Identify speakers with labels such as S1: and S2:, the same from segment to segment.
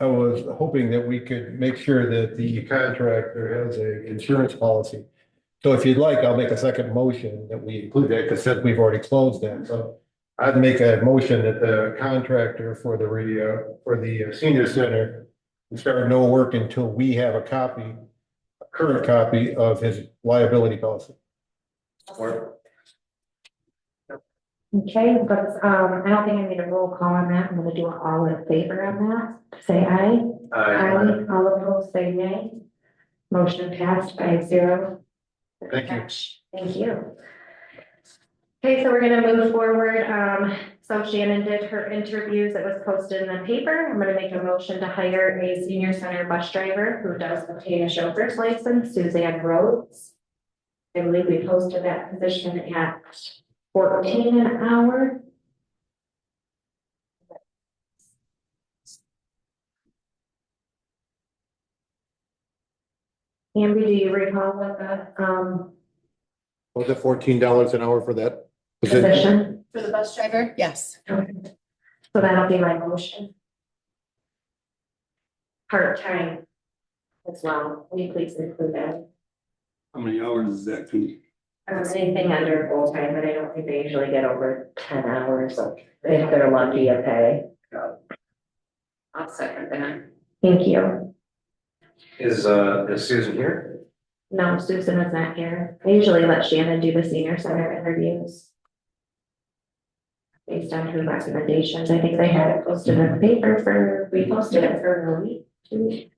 S1: I was hoping that we could make sure that the contractor has a insurance policy. So if you'd like, I'll make a second motion that we include that, because since we've already closed that, so. I'd make a motion that the contractor for the radio, for the senior center. Start no work until we have a copy, a current copy of his liability policy.
S2: Okay, but, um, I don't think I need a roll call on that. I'm gonna do it all in favor on that. Say aye. Aye. All opposed, say nay. Motion passed by zero.
S1: Thank you.
S2: Thank you. Okay, so we're gonna move forward. Um, so Shannon did her interviews. It was posted in the paper. I'm gonna make a motion to hire a senior center bus driver who does obtain a chauffeur's license, Suzanne Rhodes. I believe we posted that position at fourteen an hour. Amber, do you recall what the, um,
S1: Was it fourteen dollars an hour for that?
S2: position?
S3: For the bus driver? Yes.
S2: Okay. So that'll be my motion. Part-time as well, will you please include that?
S4: How many hours is that gonna be?
S2: Um, Anything under full-time, but I don't think they usually get over ten hours, so if they're lucky, okay.
S3: I'll second that.
S2: Thank you.
S5: Is, uh, is Susan here?
S2: No, Susan is not here. I usually let Shannon do the senior center interviews. Based on her recommendations, I think they had it posted in the paper for, we posted it for a week, two weeks,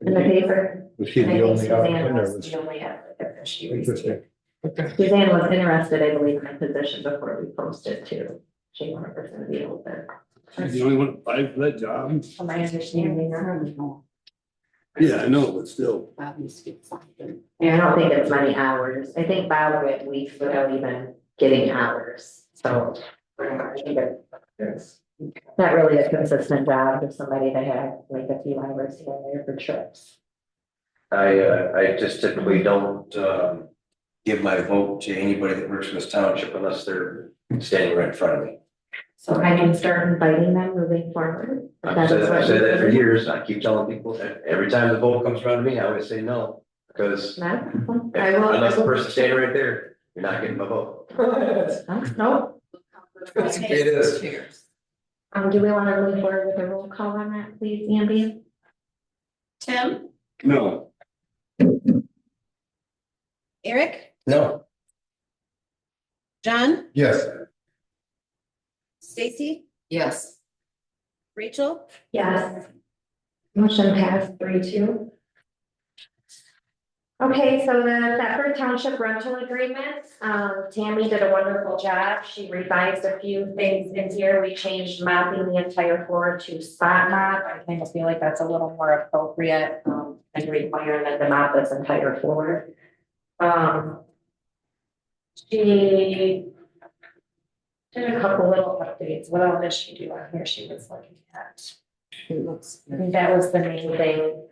S2: in the paper.
S1: Was she
S2: I
S1: the
S2: think
S1: only
S2: Suzanne
S1: option or
S2: was
S1: was?
S2: the only applicant that she
S1: Interesting.
S2: received. Suzanne was interested, I believe, in the position before we posted too. She wanted her to be open.
S4: She's the only one applied for that job?
S2: From my understanding, I don't know.
S4: Yeah, I know, but still.
S2: Yeah, I don't think it's many hours. I think Bob went weeks without even getting hours, so. I think it's
S5: Yes.
S2: Not really a consistent job if somebody that had like a few hours here and there for trips.
S5: I, uh, I just typically don't, um, give my vote to anybody that works in this township unless they're standing right in front of me.
S2: So I can start inviting them moving forward. if
S5: I've
S2: that
S5: said,
S2: is
S5: I've
S2: what
S5: said
S2: you
S5: that for
S2: do.
S5: years, I keep telling people, that every time the vote comes around to me, I always say no, because
S2: No?
S5: if-
S2: I will.
S5: unless the person's standing right there, you're not getting my vote.
S2: No, No,
S5: It is.
S2: Um, do we wanna move forward with a roll call on that, please, Andy?
S3: Tim,
S4: No,
S3: Eric,
S5: No,
S3: John,
S1: Yes,
S3: Stacy,
S6: Yes,
S3: Rachel?
S2: Yes. Motion passed three two. Okay, so the Thetford Township rental agreement, um, Tammy did a wonderful job. She revised a few things in here. We changed mopping the entire floor to spot mop. I kind of feel like that's a little more appropriate, um, and requiring that the mop this entire floor. Um. She did a couple little updates. What else did she do on here? She was looking at.
S6: it looks.
S2: I think that was the main thing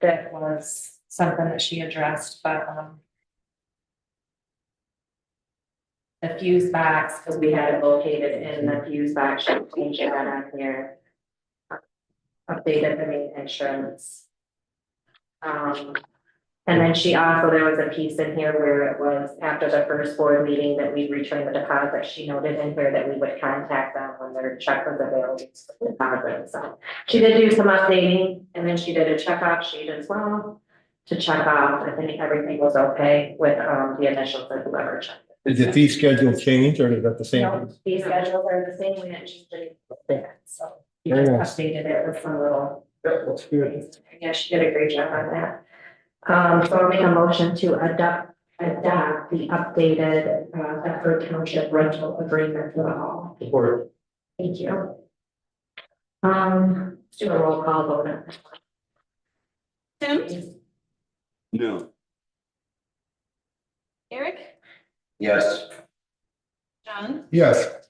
S2: that was something that she addressed, but, um. The fuse box, because we had it located in the fuse box, she changed that on here. Updated the main entrance. Um, and then she also, there was a piece in here where it was after the first board meeting that we returned the deposit. She noted in here that we would contact them when their check was available. for the deposit. So she did do some updating and then she did a checkoff sheet as well to check off if any, everything was okay with, um, the initials of whoever checked.
S1: did the fee schedule change or is that the same?
S2: No, These schedules are the same, we didn't change anything with that, so we
S1: Very nice.
S2: just updated it with some little.
S5: that looks good.
S2: Yeah, she did a great job on that. Um, so I'll make a motion to adopt, adopt the updated, uh, Bedford Township rental agreement for the hall.
S5: Support.
S2: Thank you. Um, let's do a roll call vote. on that one,
S3: Tim,
S2: please.
S4: no,
S3: Eric,
S5: Yes.
S3: John,
S1: Yes.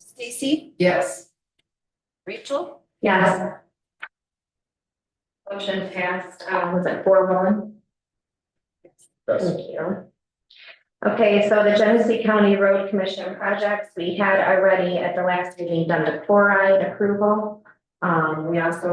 S3: Stacy,
S6: Yes,
S3: Rachel?
S2: Yes. Motion passed, uh, was it four one? Thank you. Okay, so the Genesee County Road Commission projects, we had already at the last meeting done the chloride approval. Um, we also